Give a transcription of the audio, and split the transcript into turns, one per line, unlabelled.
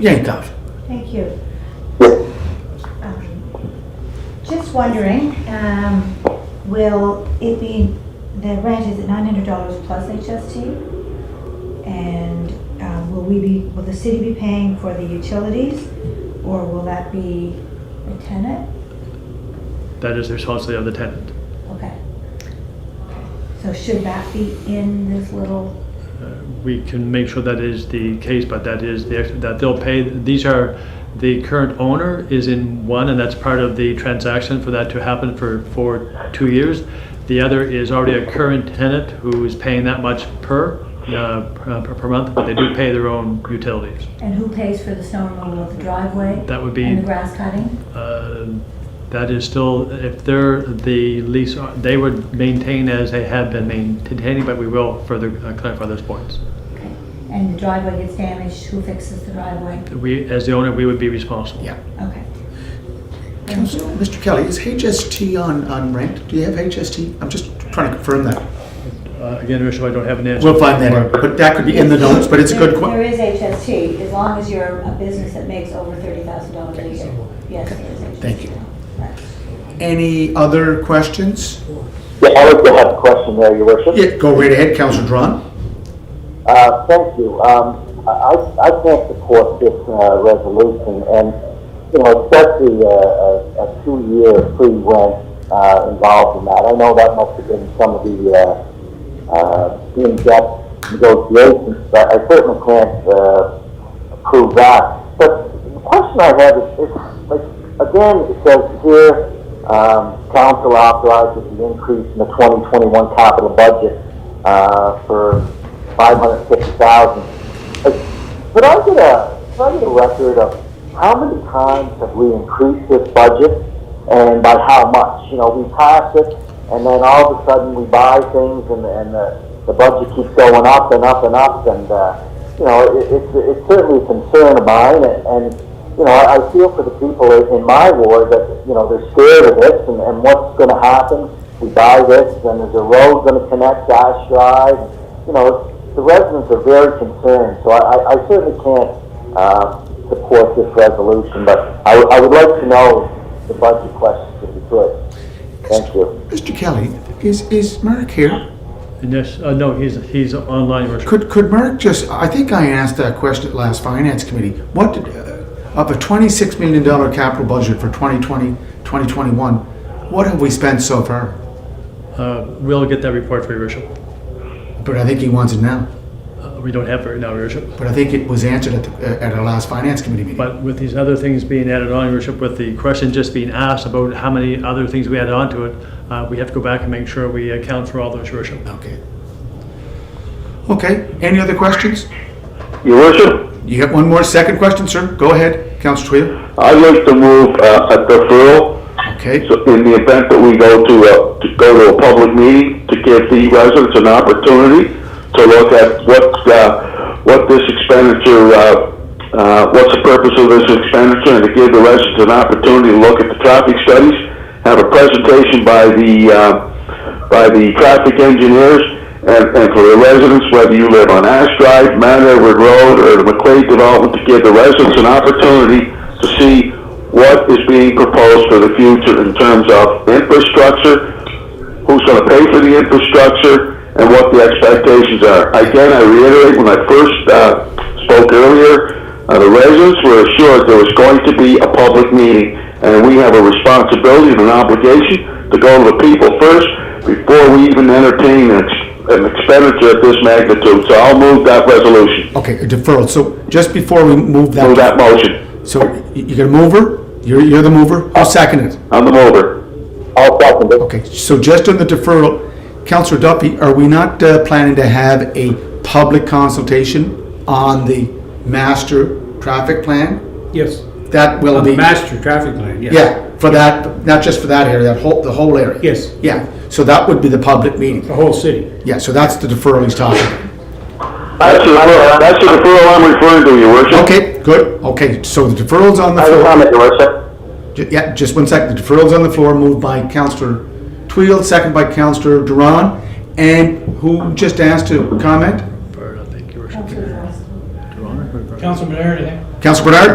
Eight thousand.
Thank you. Um, Just wondering, um, will it be, the rent is at nine hundred dollars plus HST? And, um, will we be, will the city be paying for the utilities, or will that be the tenant?
That is the responsibility of the tenant.
Okay. So should that be in this little,
Uh, We can make sure that is the case, but that is, the ex- that they'll pay, these are, the current owner is in one, and that's part of the transaction for that to happen for, for two years. The other is already a current tenant who is paying that much per, uh, per per month, but they do pay their own utilities.
and who pays for the snow removal of the driveway?
That would be-
And the grass cutting?
Uh, That is still, if they're the lease, they would maintain as they have been maintaining, but we will further uh, clarify those points.
Okay. And the driveway gets damaged, who fixes the driveway?
We, as the owner, we would be responsible.
Yeah.
Okay. Thank you.
Mr. Kelly, is HST on, on rent? Do you have HST? I'm just trying to confirm that.
Uh, Again, Richard, I don't have an answer.
We'll find that out, but that could be in the notes, but it's a good
There
question.
is HST, as long as you're a business that makes over thirty thousand dollars a year. Yes, there is HST.
Thank you.
Right.
Any other questions?
Yeah, I would have a question there, Your Worship.
Yeah, go right ahead, Councilor Drawn.
Uh, thank you. Um, I, I I can't support this uh, resolution, and you know, especially uh, a, a two-year free rent uh, involved in that. I know that must have been some of the uh, uh, in-depth negotiations, but I certainly can't uh, approve that. But the question I have is, is like, again, it says here, um, council authorizes the increase in the 2021 capital budget uh, for 550,000. Like, Could I get a, could I get a record of how many times have we increased this budget and by how much? You know, we pass it and then all of a sudden we buy things and, and the, the budget keeps going up and up and up and, uh, you know, it, it's, it's certainly a concern of mine, and, and you know, I, I feel for the people in in my ward that, you know, they're scared of this, and, and what's going to happen? We buy this, and is the road going to connect to Ash Drive? You know, the residents are very concerned, so I, I, I certainly can't uh, support this resolution, but I, I would like to know the budget questions if you could. Thank you.
Mr. Kelly, is, is Mark here?
And yes, uh, no, he's, he's online, Your Worship.
Could, could Mark just, I think I asked that question at last Finance Committee. What, did, uh, of a $26 million capital budget for 2020, 2021, what have we spent so far?
Uh, We'll get that report for Your Worship.
But I think he wants it now.
Uh, We don't have it right now, Your Worship.
But I think it was answered at, the, at our last finance committee meeting.
But with these other things being added on, Your Worship, with the question just being asked about how many other things we added on to it, uh, we have to go back and make sure we account for all those, Your Worship.
okay. Okay. Any other questions?
Your worship,
You have one more second question, sir. Go ahead, Councilor Twill.
I'd like to move uh, a deferral
Okay.
so in the event that we go to a, to go to a public meeting to give the residents an opportunity to look at what, uh, what this expenditure, uh, uh, what's the purpose of this expenditure and to give the residents an opportunity to look at the traffic studies, have a presentation by the, uh, by the traffic engineers and, and for the residents, whether you live on Ash Drive, Mount Edward Road or the McQuaid Development, to give the residents an opportunity to see what is being proposed for the future in terms of infrastructure, who's going to pay for the infrastructure, and what the expectations are. Again, I reiterate, when I first uh, spoke earlier, uh, the residents were assured there was going to be a public meeting, and we have a responsibility and an obligation to go to the people first before we even entertain an ex- an expenditure of this magnitude. So I'll move that resolution,
Okay, a deferral. So just before we move that,
move that motion.
so y- you got a mover? You're, you're the mover? I'll second it.
I'm the mover.
I'll second it.
Okay, so just on the deferral, Councilor Duffy, are we not uh, planning to have a public consultation on the master traffic plan?
Yes,
That will
on the
be.
master traffic plan, yes.
Yeah, for that, not just for that area, that whole, the whole area.
Yes.
Yeah, so that would be the public meeting.
The whole city.
Yeah, so that's the deferral he's talking. about.
That's the deferral, that's the deferral I'm referring to, your worship.
Okay, good, okay, so the deferral's on the
I have a
floor.
comment, Your Worship.
Ju- Yeah, just one second, the deferral's on the floor, moved by Councillor Twill, second by Councillor Duran. And who just asked to comment?
Or, I think, Your Worship.
Councilor Ross.
Your Honor, or-
Councilman Aaron,
Council Bernard?